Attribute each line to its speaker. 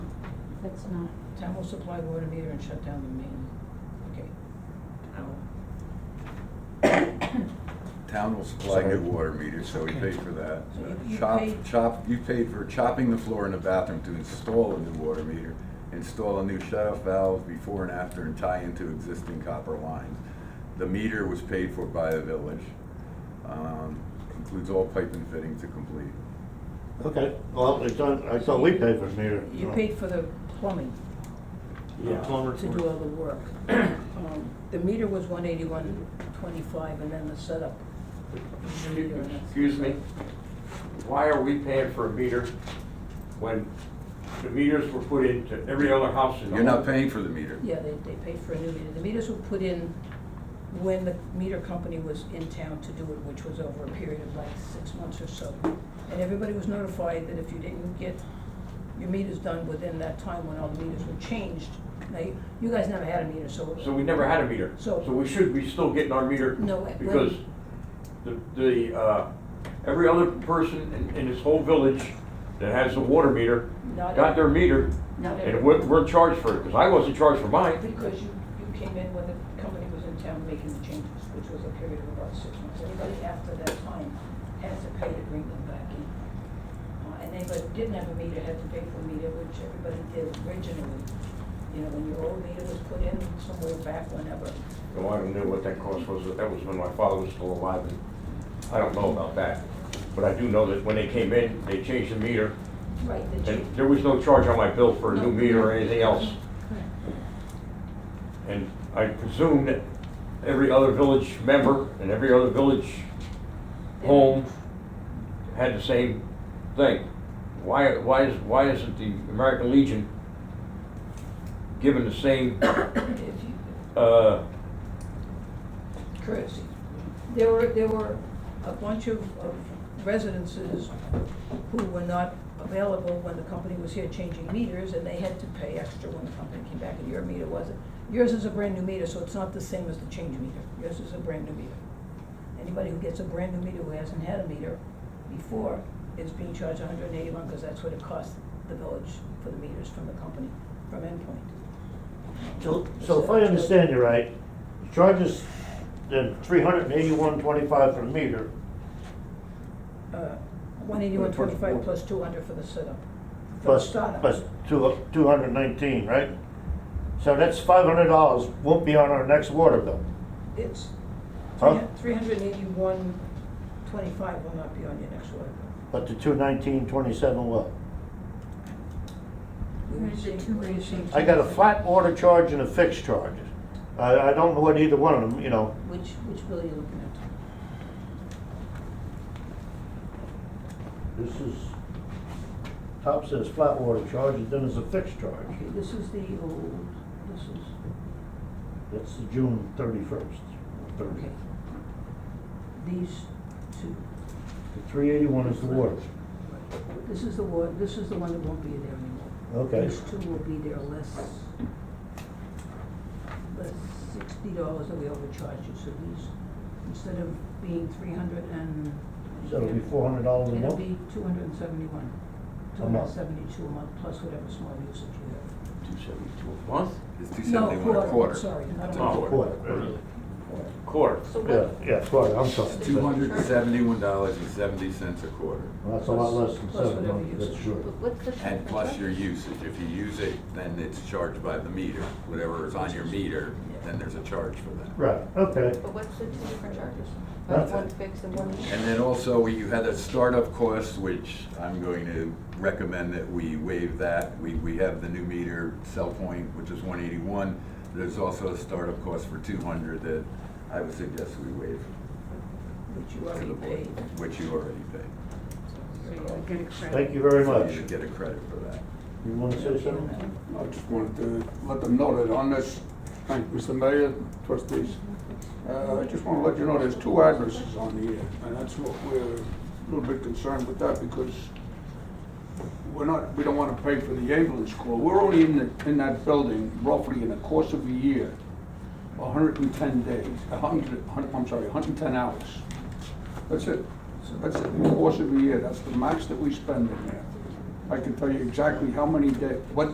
Speaker 1: That's not,
Speaker 2: Town will supply water meter and shut down the main, okay. Ow.
Speaker 3: Town will supply new water meters, so we paid for that. Uh,
Speaker 2: So you- you
Speaker 3: Chop,
Speaker 2: paid-
Speaker 3: chop, you paid for chopping the floor in the bathroom to install a new water meter, install a new shut-off valve before and after, and tie into existing copper lines. The meter was paid for by the village. Um, Includes all pipe and fitting to complete.
Speaker 4: Okay, well, it's on, I thought we paid for the meter.
Speaker 2: You paid for the plumbing
Speaker 4: Yeah.
Speaker 5: Plumber
Speaker 2: to do all the work. Um, The meter was one eighty-one twenty-five, and then the setup. was the meter, and that's-
Speaker 5: Excuse me, why are we paying for a meter when the meters were put into every other house in the
Speaker 3: You're not
Speaker 5: whole-
Speaker 3: paying for the meter.
Speaker 2: Yeah, they, they paid for a new meter. The meters were put in when the meter company was in town to do it, which was over a period of like six months or so. And everybody was notified that if you didn't get your meters done within that time when all the meters were changed, now, you- you guys never had a meter, so.
Speaker 5: So we never had a meter.
Speaker 2: So-
Speaker 5: we should be still getting our meter.
Speaker 2: No, when-
Speaker 5: Because the, the, uh, every other person in, in this whole village that has a water meter
Speaker 2: Not
Speaker 5: got
Speaker 2: every-
Speaker 5: their meter
Speaker 2: Not
Speaker 5: and
Speaker 2: every-
Speaker 5: we're, we're charged for it, because I wasn't charged for mine.
Speaker 2: Because you, you came in when the company was in town making the changes, which was a period of about six months. Anybody after that time has to pay to bring them back in. Uh, And anybody who didn't have a meter had to pay for a meter, which everybody did originally. You know, when your old meter was put in somewhere back whenever.
Speaker 5: No, I don't know what that cost was, but that was when my father was still alive, and I don't know about that. But I do know that when they came in, they changed the meter,
Speaker 2: Right, the
Speaker 5: and
Speaker 2: change.
Speaker 5: there was no charge on my bill for a new meter or anything else. And I presume that every other village member and every other village home had the same thing. Why, why is, why isn't the American Legion given the same,
Speaker 2: If you,
Speaker 5: uh,
Speaker 2: courtesy. There were, there were a bunch of, of residences who were not available when the company was here changing meters, and they had to pay extra when the company came back, and your meter wasn't. Yours is a brand-new meter, so it's not the same as the change meter. Yours is a brand-new meter. Anybody who gets a brand-new meter who hasn't had a meter before is being charged hundred and eighty-one, because that's what it cost the village for the meters from the company, from Endpoint.
Speaker 4: So, so if I understand you right, you charge us then three hundred and eighty-one twenty-five for the meter,
Speaker 2: One eighty-one twenty-five plus two hundred for the setup. For the
Speaker 4: plus,
Speaker 2: startup.
Speaker 4: plus two, two hundred and nineteen, right? So that's five hundred dollars, won't be on our next water bill.
Speaker 2: It's
Speaker 4: Huh?
Speaker 2: three hundred and eighty-one twenty-five will not be on your next order bill.
Speaker 4: But the two nineteen twenty-seven will.
Speaker 2: We
Speaker 1: Where's the
Speaker 2: received-
Speaker 1: two
Speaker 2: we
Speaker 1: eighty?
Speaker 2: received-
Speaker 4: I got a flat water charge and a fixed charge. I, I don't know what either one of them, you know,
Speaker 2: Which, which bill are you looking at?
Speaker 4: this is, top says flat water charge, and then there's a fixed charge.
Speaker 2: Okay, this is the old, this is,
Speaker 4: That's the June thirty-first, thirty.
Speaker 2: okay. These two,
Speaker 4: The three eighty-one is the water.
Speaker 2: this is the one, this is the one that won't be there anymore.
Speaker 4: Okay.
Speaker 2: These two will be there less, less sixty dollars that we overcharged you, so these, instead of being three hundred and.
Speaker 4: So it'll be four hundred dollars a
Speaker 2: It'll
Speaker 4: month?
Speaker 2: be two hundred and seventy-one, two
Speaker 4: A
Speaker 2: hundred and
Speaker 4: month.
Speaker 2: seventy-two a month, plus whatever small usage you have.
Speaker 5: two seventy-two a month?
Speaker 3: It's two
Speaker 2: No,
Speaker 3: seventy-one a quarter.
Speaker 2: Sorry, not
Speaker 3: That's
Speaker 2: a
Speaker 3: a
Speaker 2: month.
Speaker 3: Oh. quarter.
Speaker 4: Quarter.
Speaker 5: Quarter.
Speaker 6: So
Speaker 4: Yeah,
Speaker 6: what,
Speaker 4: yeah, quarter, I'm sorry.
Speaker 3: Two hundred and seventy-one dollars and seventy cents a quarter.
Speaker 4: Well, That's a lot less than
Speaker 2: Plus
Speaker 4: seven
Speaker 2: whatever
Speaker 4: months, that's
Speaker 2: usage.
Speaker 4: sure.
Speaker 6: what's the?
Speaker 3: And plus your usage, if you use it, then it's charged by the meter, whatever is on your meter, then there's a charge for that.
Speaker 4: Right, okay.
Speaker 6: But what's the two different charges?
Speaker 4: That's
Speaker 6: One
Speaker 3: it.
Speaker 6: fixed and one.
Speaker 3: And then also, you had a startup cost, which I'm going to recommend that we waive that. We, we have the new meter cell point, which is one eighty-one. There's also a startup cost for two hundred that I would suggest we waive
Speaker 2: Which you
Speaker 3: to
Speaker 2: already
Speaker 3: the board,
Speaker 2: paid.
Speaker 3: which you already paid.
Speaker 1: so you'll get a credit.
Speaker 4: Thank you very
Speaker 3: So
Speaker 4: much.
Speaker 3: you get a credit for that.
Speaker 4: You wanna say something?
Speaker 7: I just wanted to let them know that on this, thank you, Mr. Mayor, trustees. Uh, I just want to let you know, there's two addresses on here, and that's what we're a little bit concerned with that because we're not, we don't want to pay for the ambulance call. We're only in, the- in that building roughly in the course of a year, 110 days, 100, I'm sorry, 110 hours. That's it. That's it, in the course of a year, that's the max that we spend in there. I can tell you exactly how many days, what